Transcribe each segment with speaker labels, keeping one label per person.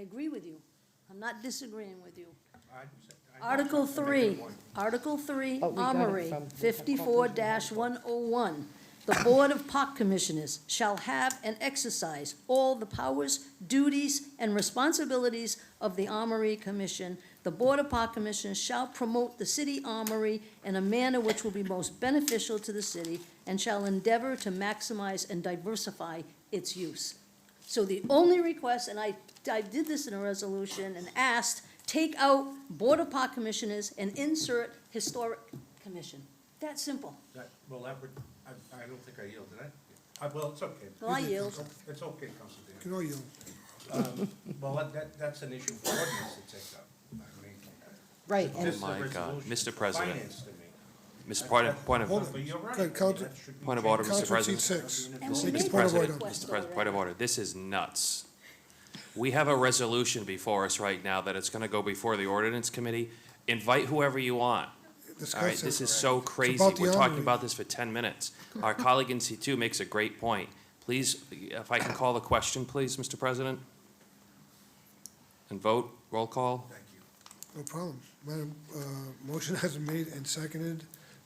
Speaker 1: agree with you. I'm not disagreeing with you.
Speaker 2: I- I-
Speaker 1: Article
Speaker 2: I'm making
Speaker 1: three,
Speaker 2: one.
Speaker 1: Article three,
Speaker 3: But Oh, we got it
Speaker 1: Armory,
Speaker 3: from-
Speaker 1: fifty-four one oh one. The Board of Park Commissioners shall have and exercise all the powers, duties, and responsibilities of the Armory Commission. The Board of Park Commissioners shall promote the city armory in a manner which will be most beneficial to the city and shall endeavor to maximize and diversify its use. So the only request, and I, I did this in a resolution and asked, take out Board of Park Commissioners and insert Historic Commission. That simple.
Speaker 2: That- Well, that would, I, I don't think I yielded, I, I, well, it's okay.
Speaker 1: Well, I
Speaker 2: It's-
Speaker 1: yield.
Speaker 2: it's- It's okay, Council Dan.
Speaker 4: Can I um, yield?
Speaker 2: Well, that- that, that's an issue for ordinance to take up. I mean,
Speaker 3: Right,
Speaker 2: this
Speaker 3: and,
Speaker 2: is a
Speaker 5: Oh my God,
Speaker 2: resolution
Speaker 5: Mr.
Speaker 2: for
Speaker 5: President.
Speaker 2: Finance Committee.
Speaker 5: Mr. Point of, point
Speaker 4: Hold
Speaker 5: of,
Speaker 4: on.
Speaker 2: But you're right.
Speaker 4: Okay,
Speaker 2: I mean,
Speaker 4: Counsel-
Speaker 2: that should be
Speaker 5: point of order,
Speaker 2: changed.
Speaker 5: Mr.
Speaker 4: Council seat
Speaker 5: President.
Speaker 4: six.
Speaker 1: And we
Speaker 4: Take
Speaker 1: made that
Speaker 4: the
Speaker 5: Mr.
Speaker 4: point of
Speaker 5: President,
Speaker 4: order.
Speaker 1: request
Speaker 5: Mr. President,
Speaker 1: already.
Speaker 5: point of order, this is nuts. We have a resolution before us right now that it's gonna go before the ordinance committee. Invite whoever you want. All right,
Speaker 4: Discuss
Speaker 5: this
Speaker 4: it.
Speaker 5: is so crazy.
Speaker 4: about the
Speaker 5: We're talking
Speaker 4: armory.
Speaker 5: about this for ten minutes. Our colleague in C two makes a great point. Please, if I can call the question, please, Mr. President? And vote, roll call.
Speaker 2: Thank you.
Speaker 4: No problem. Madam, uh, motion has been made and seconded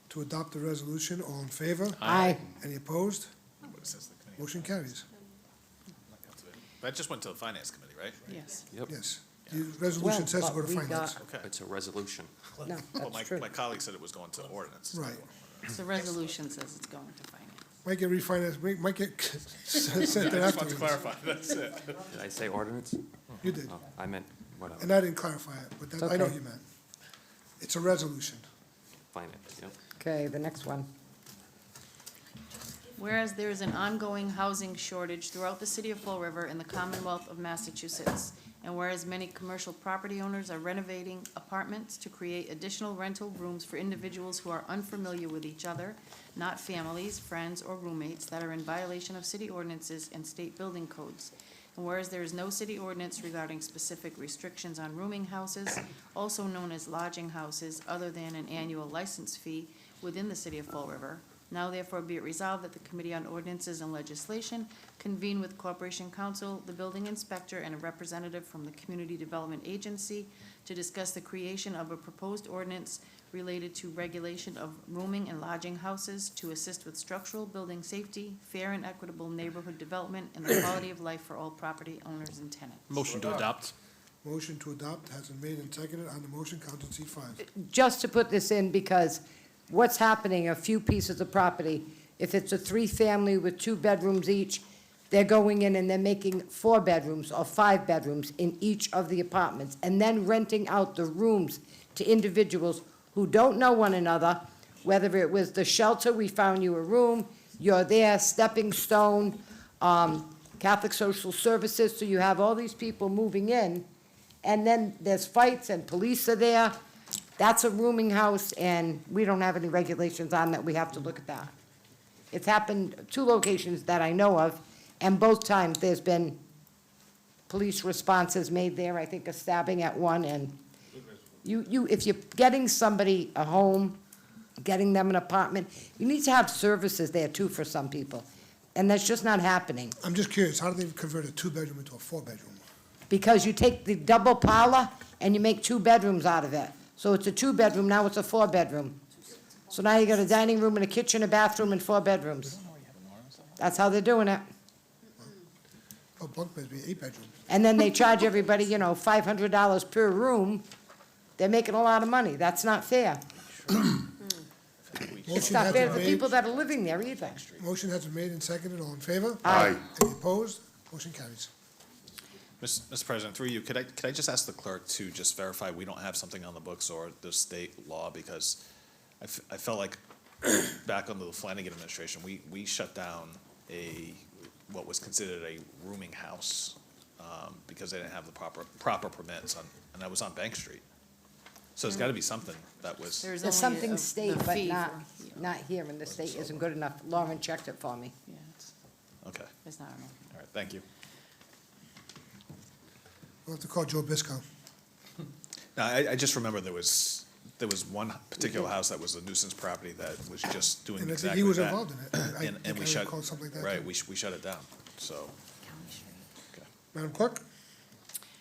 Speaker 4: to adopt the resolution. All in favor?
Speaker 3: Aye.
Speaker 4: Any opposed?
Speaker 6: It says the committee.
Speaker 4: Motion carries.
Speaker 6: That just went to the finance committee, right?
Speaker 3: yes,
Speaker 5: Yep,
Speaker 4: Yes. The resolution
Speaker 3: Well,
Speaker 4: says to
Speaker 3: but
Speaker 4: go to
Speaker 3: we
Speaker 4: finance.
Speaker 3: got-
Speaker 6: Okay.
Speaker 5: it's a resolution.
Speaker 3: no,
Speaker 6: Well,
Speaker 3: that's
Speaker 6: my,
Speaker 3: true.
Speaker 6: my colleague said it was going to ordinance.
Speaker 4: Right.
Speaker 7: The resolution says it's going to finance.
Speaker 4: Might get refinanced, might- might get sent
Speaker 6: I
Speaker 4: that
Speaker 6: just want to
Speaker 4: afterwards.
Speaker 6: clarify, that's it.
Speaker 5: Did I say ordinance?
Speaker 4: You did.
Speaker 5: No, I meant, whatever,
Speaker 4: And I didn't clarify it, but that, I know
Speaker 3: Okay.
Speaker 4: you meant. It's a resolution.
Speaker 5: finance, yep.
Speaker 3: Okay, the next one.
Speaker 7: Whereas there is an ongoing housing shortage throughout the city of Fall River and the Commonwealth of Massachusetts, and whereas many commercial property owners are renovating apartments to create additional rental rooms for individuals who are unfamiliar with each other, not families, friends, or roommates that are in violation of city ordinances and state building codes. And whereas there is no city ordinance regarding specific restrictions on rooming houses, also known as lodging houses, other than an annual license fee within the city of Fall River, now therefore be it resolved that the Committee on Ordinances and Legislation convene with Corporation Counsel, the Building Inspector, and a representative from the Community Development Agency to discuss the creation of a proposed ordinance related to regulation of rooming and lodging houses to assist with structural building safety, fair and equitable neighborhood development, and the quality of life for all property owners and tenants.
Speaker 6: Motion to adopt.
Speaker 4: Motion to adopt has been made and seconded. On the motion, Council seat five.
Speaker 3: Just to put this in, because what's happening, a few pieces of property, if it's a three-family with two bedrooms each, they're going in and they're making four bedrooms or five bedrooms in each of the apartments, and then renting out the rooms to individuals who don't know one another, whether it was the shelter, we found you a room, you're there, Stepping Stone, um, Catholic Social Services, so you have all these people moving in, and then there's fights and police are there. That's a rooming house, and we don't have any regulations on that, we have to look at that. It's happened two locations that I know of, and both times there's been police responses made there, I think a stabbing at one, and you, you, if you're getting somebody a home, getting them an apartment, you need to have services there too for some people, and that's just not happening.
Speaker 4: I'm just curious, how do they convert a two-bedroom into a four-bedroom?
Speaker 3: because you take the double parlor and you make two bedrooms out of it. So it's a two-bedroom, now it's a four-bedroom. So now you got a dining room and a kitchen, a bathroom, and four bedrooms. That's how they're doing it.
Speaker 4: Oh, bunk beds be eight-bedroom.
Speaker 3: And then they charge everybody, you know, five hundred dollars per room. They're making a lot of money. That's not fair. It's
Speaker 4: Motion
Speaker 3: not
Speaker 4: has
Speaker 3: fair
Speaker 4: been
Speaker 3: to the
Speaker 4: made,
Speaker 3: people that are living there either.
Speaker 4: motion has been made and seconded. All in favor?
Speaker 3: Aye.
Speaker 4: Any opposed? Motion carries.
Speaker 6: Ms- Mr. President, through you, could I, could I just ask the clerk to just verify we don't have something on the books or the state law? Because I, f- I felt like back under the Flanagan administration, we, we shut down a, what was considered a rooming house, um, because they didn't have the proper, proper permits on, and that was on Bank Street. So there's gotta be something that was.
Speaker 7: There's
Speaker 3: There's
Speaker 7: only a-
Speaker 3: something
Speaker 7: the
Speaker 3: state, but
Speaker 7: fee
Speaker 3: not,
Speaker 7: for- yeah,
Speaker 3: not here, and the state isn't good enough. Lauren checked it for me.
Speaker 7: Yeah, it's,
Speaker 6: Okay,
Speaker 7: it's not enough.
Speaker 6: all right, thank you.
Speaker 4: We'll have to call Joe Biscoe.
Speaker 6: No, I, I just remember there was, there was one particular house that was a nuisance property that was just doing
Speaker 4: And I think
Speaker 6: exactly
Speaker 4: he was
Speaker 6: that.
Speaker 4: involved in it. I
Speaker 6: And, and
Speaker 4: think I
Speaker 6: we shut,
Speaker 4: recall something like that.
Speaker 6: right, we, sh- we shut it down, so.
Speaker 4: Madam Clerk?